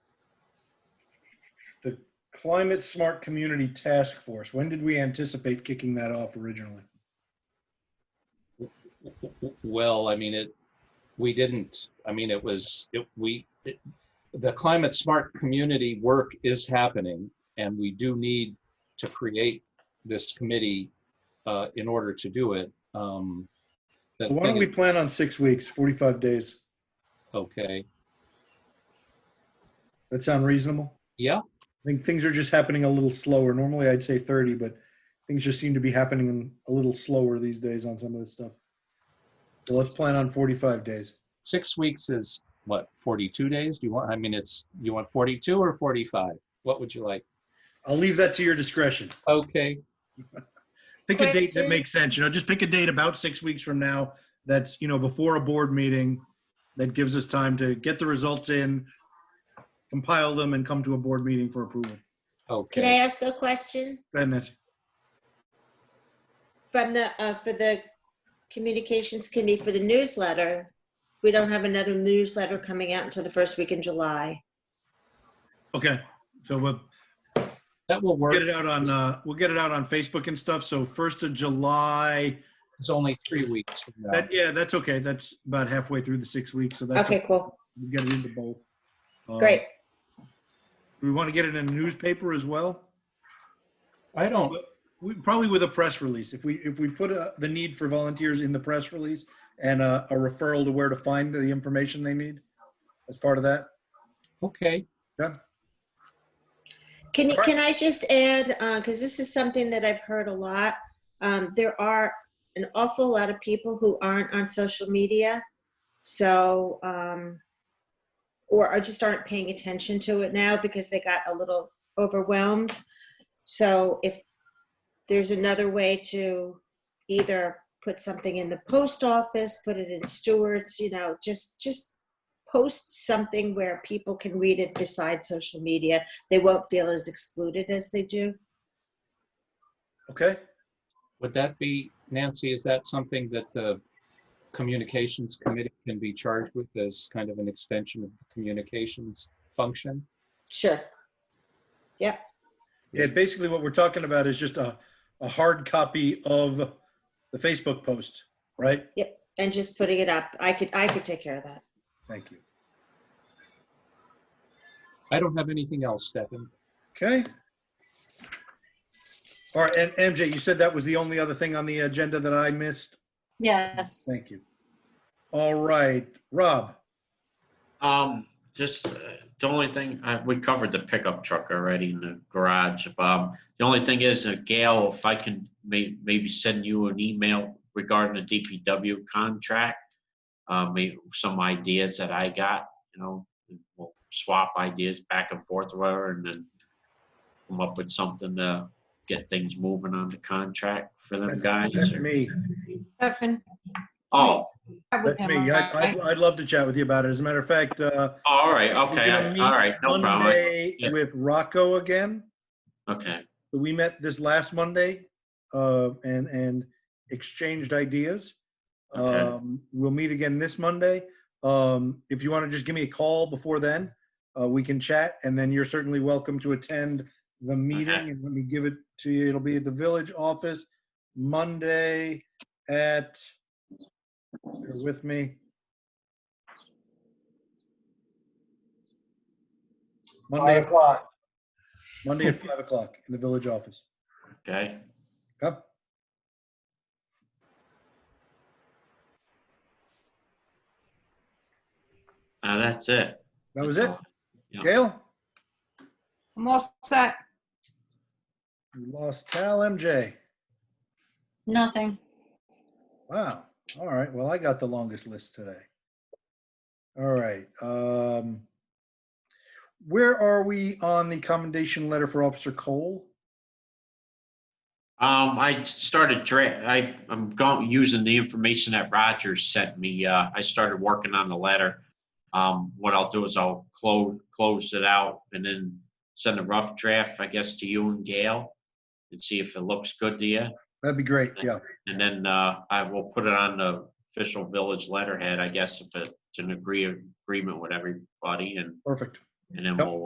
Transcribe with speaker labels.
Speaker 1: the Climate Smart Community Task Force, when did we anticipate kicking that off originally?
Speaker 2: Well, I mean, it, we didn't, I mean, it was, it, we, it- the climate smart community work is happening and we do need to create this committee uh, in order to do it. Um, the
Speaker 1: Why don't
Speaker 2: thing
Speaker 1: we
Speaker 2: is-
Speaker 1: plan on six weeks, 45 days?
Speaker 2: Okay,
Speaker 1: That sound reasonable?
Speaker 2: yeah,
Speaker 1: I think things are just happening a little slower. Normally I'd say 30, but things just seem to be happening a little slower these days on some of this stuff. So let's plan on 45 days.
Speaker 2: six weeks is what, 42 days? Do you want, I mean, it's, you want 42 or 45? What would you like?
Speaker 1: I'll leave that to your discretion.
Speaker 2: Okay,
Speaker 1: Pick a date that
Speaker 3: Question?
Speaker 1: makes sense, you know, just pick a date about six weeks from now that's, you know, before a board meeting that gives us time to get the results in, compile them and come to a board meeting for approval.
Speaker 3: Can I
Speaker 2: okay.
Speaker 3: ask a question
Speaker 1: Go ahead, Nancy.
Speaker 3: from the, uh, for the communications committee for the newsletter? We don't have another newsletter coming out until the first week in July.
Speaker 1: Okay, so we'll
Speaker 2: That will work.
Speaker 1: get it out on, uh, we'll get it out on Facebook and stuff. So first of July,
Speaker 2: It's only three weeks from now.
Speaker 1: That, yeah, that's okay. That's about halfway through the six weeks, so that's,
Speaker 3: Okay, cool.
Speaker 1: we get it in the bowl. Um,
Speaker 3: Great.
Speaker 1: We want to get it in a newspaper as well,
Speaker 2: I don't,
Speaker 1: we, probably with a press release. If we, if we put uh, the need for volunteers in the press release and uh, a, a referral to where to find the information they need as part of that.
Speaker 2: okay.
Speaker 1: Yeah,
Speaker 3: Can you,
Speaker 1: Correct.
Speaker 3: can I just add, uh, cause this is something that I've heard a lot. Um, there are an awful lot of people who aren't on social media. So, um, or are just aren't paying attention to it now because they got a little overwhelmed. So if there's another way to either put something in the post office, put it in Stewart's, you know, just, just post something where people can read it besides social media they won't feel as excluded as they do.
Speaker 1: okay.
Speaker 2: Would that be, Nancy, is that something that the communications committee can be charged with as kind of an extension of the communications function?
Speaker 3: Sure.
Speaker 1: Yeah, basically what we're talking about is just a, a hard copy of the Facebook post, right?
Speaker 3: And just putting it up, I could, I could take care of that.
Speaker 1: Thank you.
Speaker 2: I don't have anything else, Stefan.
Speaker 1: Okay. All right, and MJ, you said that was the only other thing on the agenda that I missed?
Speaker 4: Yes.
Speaker 1: Thank you. All right, Rob,
Speaker 5: Um, just, uh, the only thing, I, we covered the pickup truck already in the garage, Bob. The only thing is, uh, Gail, if I can may, maybe send you an email regarding the DPW contract. Uh, may some ideas that I got, you know, we'll swap ideas back and forth or whatever, and then come up with something to get things moving on the contract for them guys.
Speaker 1: that's
Speaker 5: or-
Speaker 1: me.
Speaker 4: Stefan,
Speaker 5: Oh,
Speaker 4: I'm with
Speaker 1: That's
Speaker 4: him.
Speaker 1: me. I- I'd, I'd love to chat with you about it. As a matter of fact, uh,
Speaker 5: all right, okay,
Speaker 1: We're gonna meet
Speaker 5: all right, no problem.
Speaker 1: Monday
Speaker 5: yeah.
Speaker 1: with Rocco again.
Speaker 5: Okay.
Speaker 1: We met this last Monday, uh, and, and exchanged ideas.
Speaker 5: Okay.
Speaker 1: Um, we'll meet again this Monday. Um, if you want to just give me a call before then, uh, we can chat, and then you're certainly welcome to attend the meeting.
Speaker 5: Okay.
Speaker 1: And let me give it to you. It'll be at the village office Monday at, you're with me. Monday
Speaker 6: Five o'clock.
Speaker 1: Monday at five o'clock in the village office.
Speaker 5: Okay,
Speaker 1: Okay.
Speaker 5: uh, that's it.
Speaker 1: That was
Speaker 5: That's
Speaker 1: it.
Speaker 5: all. Yeah.
Speaker 1: Gail,
Speaker 4: I'm all set.
Speaker 1: we lost Tal MJ.
Speaker 4: Nothing.
Speaker 1: Wow. All right. Well, I got the longest list today. All right. Um, where are we on the commendation letter for Officer Cole?
Speaker 5: Um, I started dra- I, I'm going, using the information that Roger sent me. Uh, I started working on the letter. Um, what I'll do is I'll close, close it out and then send a rough draft, I guess, to you and Gail and see if it looks good to you.
Speaker 1: That'd be great. Yeah.
Speaker 5: And then, uh, I will put it on the official village letterhead, I guess, if it's an agree, agreement with everybody and,
Speaker 1: Perfect.
Speaker 5: and then
Speaker 1: Yep.
Speaker 5: we'll